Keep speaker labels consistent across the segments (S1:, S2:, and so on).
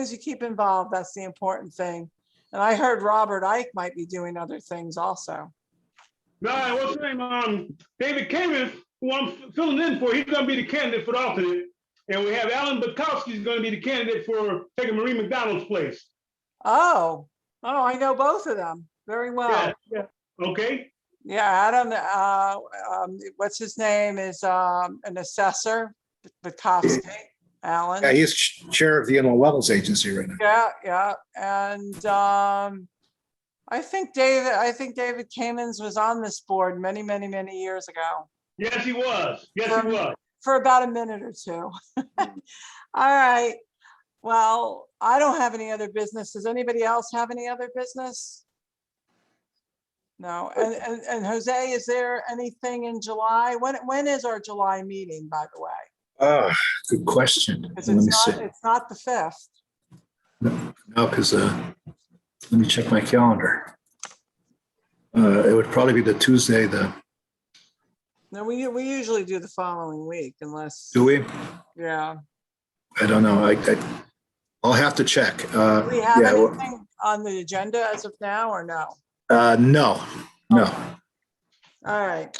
S1: as you keep involved, that's the important thing. And I heard Robert Ike might be doing other things also.
S2: No, what's his name? Um, David Cameron, who I'm filling in for, he's gonna be the candidate for the alternate. And we have Alan Butkowski's gonna be the candidate for taking Marie McDonald's place.
S1: Oh, oh, I know both of them very well.
S2: Yeah, yeah. Okay,
S1: Yeah, Adam, uh, um, what's his name is, um, an assessor, Bukowski,
S3: Yeah,
S1: Alan.
S3: he's ch- chair of the Inland Wetlands Agency right now.
S1: Yeah, yeah, and, um, I think David, I think David Kamens was on this board many, many, many years ago
S2: yes, he was, yes, he was.
S1: for about a minute or two.
S3: Hmm.
S1: All right. Well, I don't have any other business. Does anybody else have any other business? No, and, and, and Jose, is there anything in July? When, when is our July meeting, by the way?
S3: Ah, good question. Let
S1: Because
S3: me
S1: it's
S3: see.
S1: not, it's not the fifth.
S3: No, because, uh, let me check my calendar. Uh, it would probably be the Tuesday, the,
S1: No, we, we usually do the following week unless,
S3: do we?
S1: yeah.
S3: I don't know. I, I, I'll have to check. Uh,
S1: Do we have
S3: yeah, well,
S1: anything on the agenda as of now or no?
S3: uh, no, no.
S1: All right.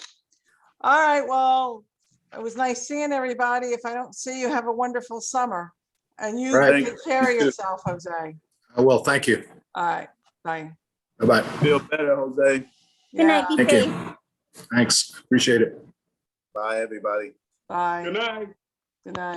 S1: All right, well, it was nice seeing everybody. If I don't see you, have a wonderful summer. And you
S3: Right.
S1: take care of yourself, Jose.
S3: Uh, Well, thank you.
S1: All right, bye.
S3: Bye-bye.
S4: Feel better, Jose.
S5: Good night, be
S1: Yeah,
S3: Thank
S5: safe.
S3: you. Thanks. Appreciate it.
S4: Bye, everybody.
S1: Bye,
S2: Good night.
S1: good night.